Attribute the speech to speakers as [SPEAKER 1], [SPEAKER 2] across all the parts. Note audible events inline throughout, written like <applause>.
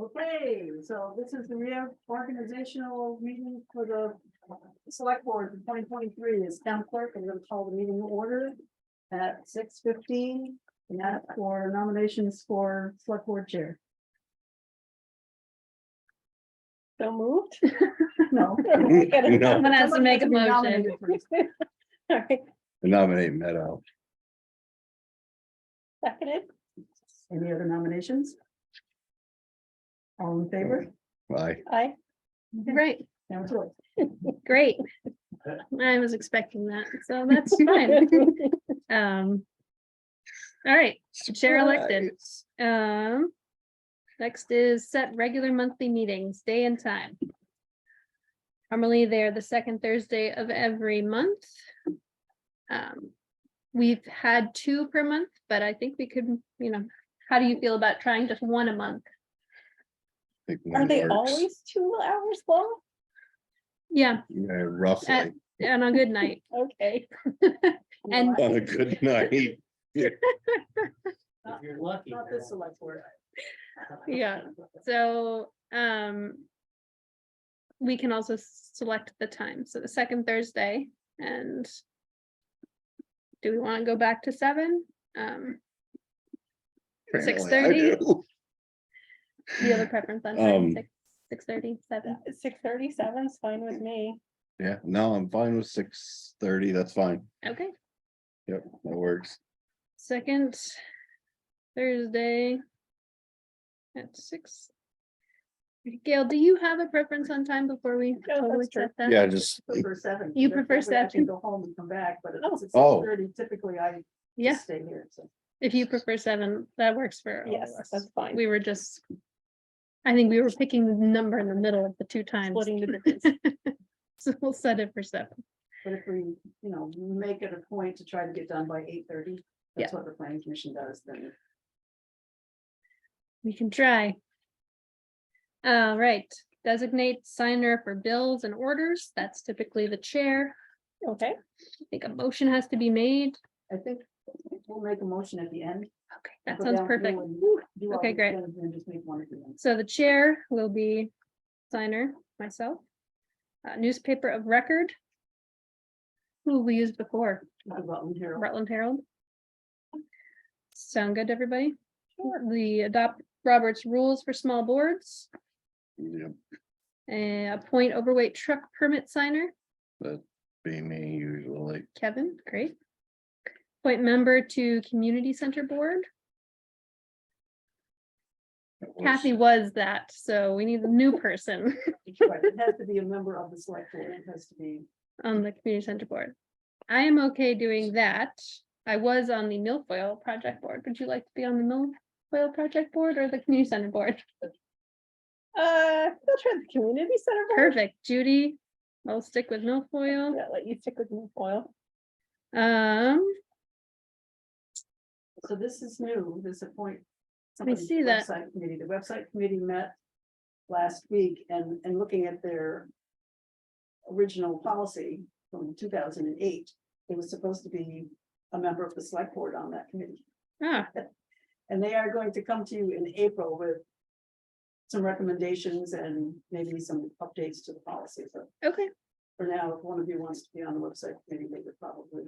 [SPEAKER 1] Okay, so this is the reorganizational meeting for the select board for twenty twenty-three. As town clerk, I'm gonna call the meeting to order at six fifteen. And that for nominations for select board chair. <laughs>
[SPEAKER 2] So moved.
[SPEAKER 1] No.
[SPEAKER 2] <laughs> No.
[SPEAKER 3] No,
[SPEAKER 2] Someone has to
[SPEAKER 1] Someone has
[SPEAKER 2] make a
[SPEAKER 1] to be
[SPEAKER 2] motion.
[SPEAKER 1] nominated
[SPEAKER 2] <laughs>
[SPEAKER 1] first.
[SPEAKER 2] Alright,
[SPEAKER 3] nominate Meadow.
[SPEAKER 2] seconded.
[SPEAKER 1] Any other nominations? All in favor?
[SPEAKER 3] Aye.
[SPEAKER 2] Aye. Right,
[SPEAKER 1] Now it's yours.
[SPEAKER 2] <laughs> great. I was expecting that, so that's
[SPEAKER 1] <laughs>
[SPEAKER 2] <laughs> fine. Um. All right, chair elected. Um. Next is set regular monthly meetings, day and time. Normally, they're the second Thursday of every month. Um, we've had two per month, but I think we could, you know, how do you feel about trying just one a month?
[SPEAKER 3] Think
[SPEAKER 2] Are
[SPEAKER 3] one
[SPEAKER 2] they
[SPEAKER 3] works.
[SPEAKER 2] always two hours long? Yeah,
[SPEAKER 3] Yeah, Roughly,
[SPEAKER 2] and on a good <laughs> night.
[SPEAKER 4] Okay.
[SPEAKER 2] And-
[SPEAKER 3] <laughs> on
[SPEAKER 2] <laughs>
[SPEAKER 3] a good night.
[SPEAKER 1] If
[SPEAKER 4] you're lucky.
[SPEAKER 1] Not this select board.
[SPEAKER 2] <laughs> Yeah. So, um. We can also select the time, so the second Thursday and. Do we want to go back to seven? Um,
[SPEAKER 3] Apparently I
[SPEAKER 2] 6:30?
[SPEAKER 3] do.
[SPEAKER 2] do you have a preference on time,
[SPEAKER 3] Um,
[SPEAKER 2] six, six thirty, seven?
[SPEAKER 4] Six thirty-seven is fine with me.
[SPEAKER 3] <laughs> Yeah, no, I'm fine with six thirty, that's fine.
[SPEAKER 2] Okay,
[SPEAKER 3] Yep, that works.
[SPEAKER 2] second Thursday. At six. Gail, do you have a preference on time before we?
[SPEAKER 4] that's
[SPEAKER 2] totally
[SPEAKER 4] true.
[SPEAKER 2] set that?
[SPEAKER 3] Yeah, just,
[SPEAKER 1] Prefer seven.
[SPEAKER 2] You
[SPEAKER 1] That
[SPEAKER 2] prefer
[SPEAKER 1] way I can
[SPEAKER 2] seven?
[SPEAKER 1] Go home and come back, but if it's
[SPEAKER 3] Oh.
[SPEAKER 1] six thirty, typically I just
[SPEAKER 2] Yeah,
[SPEAKER 1] stay here, so.
[SPEAKER 2] if you prefer seven, that works
[SPEAKER 1] Oh,
[SPEAKER 2] for. all of
[SPEAKER 4] Yes,
[SPEAKER 2] us.
[SPEAKER 4] that's fine.
[SPEAKER 2] We were just. I think we were picking the number in the middle of the two times. <laughs>
[SPEAKER 4] Splitting the difference.
[SPEAKER 2] So we'll set it for seven.
[SPEAKER 1] But if we, you know, make it a point to try to get done by eight thirty, that's what the planning commission does, then.
[SPEAKER 2] We can try. All right, designate signer for bills and orders. That's typically the chair.
[SPEAKER 4] Okay,
[SPEAKER 2] I think a motion has to be made.
[SPEAKER 1] I think we'll make a motion at the end.
[SPEAKER 2] Okay, that
[SPEAKER 1] Go
[SPEAKER 2] sounds
[SPEAKER 1] down through
[SPEAKER 2] perfect.
[SPEAKER 1] and do all
[SPEAKER 2] Okay,
[SPEAKER 1] the
[SPEAKER 2] great.
[SPEAKER 1] things And then just make one at the end.
[SPEAKER 2] So the chair will be signer, myself. Uh, Newspaper of record. Who we used before,
[SPEAKER 1] Talk about in here.
[SPEAKER 2] Rutland Herald. Sound good, to everybody? The adopt Robert's rules for small boards,
[SPEAKER 3] yeah,
[SPEAKER 2] and appoint overweight truck permit signer,
[SPEAKER 3] be me usually.
[SPEAKER 2] Kevin, great. Appoint member to community center board,
[SPEAKER 3] That works.
[SPEAKER 2] Kathy was that, so we need a new person
[SPEAKER 1] Right, It has to be a member of the select board, it has to be.
[SPEAKER 2] on the community center board. I am okay doing that. I was on the milfoil project board. Would you like to be on the milfoil project board or the community center board? <laughs>
[SPEAKER 4] uh, we'll try the community center. board.
[SPEAKER 2] Perfect, Judy. I'll stick with milfoil.
[SPEAKER 4] Yeah, let you stick with me, foil.
[SPEAKER 2] Um,
[SPEAKER 1] So this is new, this appoint.
[SPEAKER 2] I see
[SPEAKER 1] somebody's
[SPEAKER 2] that.
[SPEAKER 1] website Committee, the website committee met last week and, and looking at their original policy from two thousand and eight, it was supposed to be a member of the select board on that committee.
[SPEAKER 2] ah,
[SPEAKER 1] And they are going to come to you in April with some recommendations and maybe some updates to the policy, but
[SPEAKER 2] okay.
[SPEAKER 1] for now, if one of you wants to be on the website committee, they would probably.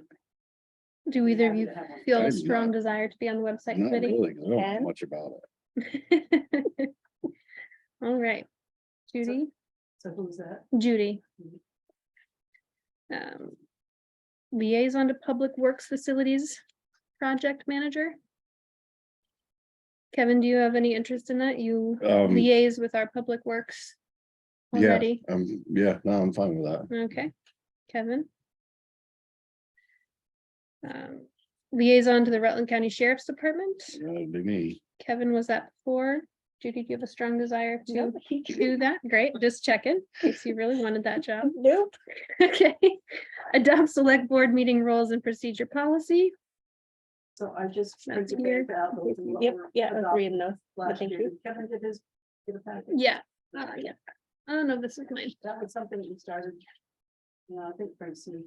[SPEAKER 2] Do
[SPEAKER 1] be
[SPEAKER 2] either of
[SPEAKER 1] happy
[SPEAKER 2] you
[SPEAKER 1] to have one.
[SPEAKER 2] feel
[SPEAKER 3] I'm
[SPEAKER 2] a strong
[SPEAKER 3] not-
[SPEAKER 2] desire to be on the website
[SPEAKER 3] Not
[SPEAKER 2] committee?
[SPEAKER 3] really, 'cause I don't know
[SPEAKER 4] Ken?
[SPEAKER 3] much about it.
[SPEAKER 2] <laughs> All right, Judy,
[SPEAKER 1] So who's that?
[SPEAKER 2] Judy.
[SPEAKER 1] Mhm.
[SPEAKER 2] Um, Liaison to Public Works Facilities Project Manager. Kevin, do you have any interest in that? You
[SPEAKER 3] Um,
[SPEAKER 2] liaise with our Public Works
[SPEAKER 3] Yeah.
[SPEAKER 2] already?
[SPEAKER 3] um, yeah, no, I'm fine with that.
[SPEAKER 2] Okay, Kevin. Um, Liaison to the Rutland County Sheriff's Department.
[SPEAKER 3] That'd be me.
[SPEAKER 2] Kevin was that before. Judy, do you have a strong desire to
[SPEAKER 4] Nope, he-
[SPEAKER 2] do that? Great, just checking, in case you really wanted that
[SPEAKER 4] <laughs>
[SPEAKER 2] job.
[SPEAKER 4] Nope,
[SPEAKER 2] Okay. Adopt select board meeting rules and procedure policy.
[SPEAKER 1] So I just.
[SPEAKER 2] That's
[SPEAKER 1] printed
[SPEAKER 2] here.
[SPEAKER 1] those out, those are what
[SPEAKER 4] yep,
[SPEAKER 1] were
[SPEAKER 4] yeah, I was
[SPEAKER 1] adopted
[SPEAKER 4] reading those.
[SPEAKER 1] Last
[SPEAKER 4] thank
[SPEAKER 1] year,
[SPEAKER 4] you.
[SPEAKER 1] Kevin did his. did a packet.
[SPEAKER 2] Yeah. uh, yeah. I don't know, if this is mine.
[SPEAKER 1] That was something that you started. Yeah, I think Francine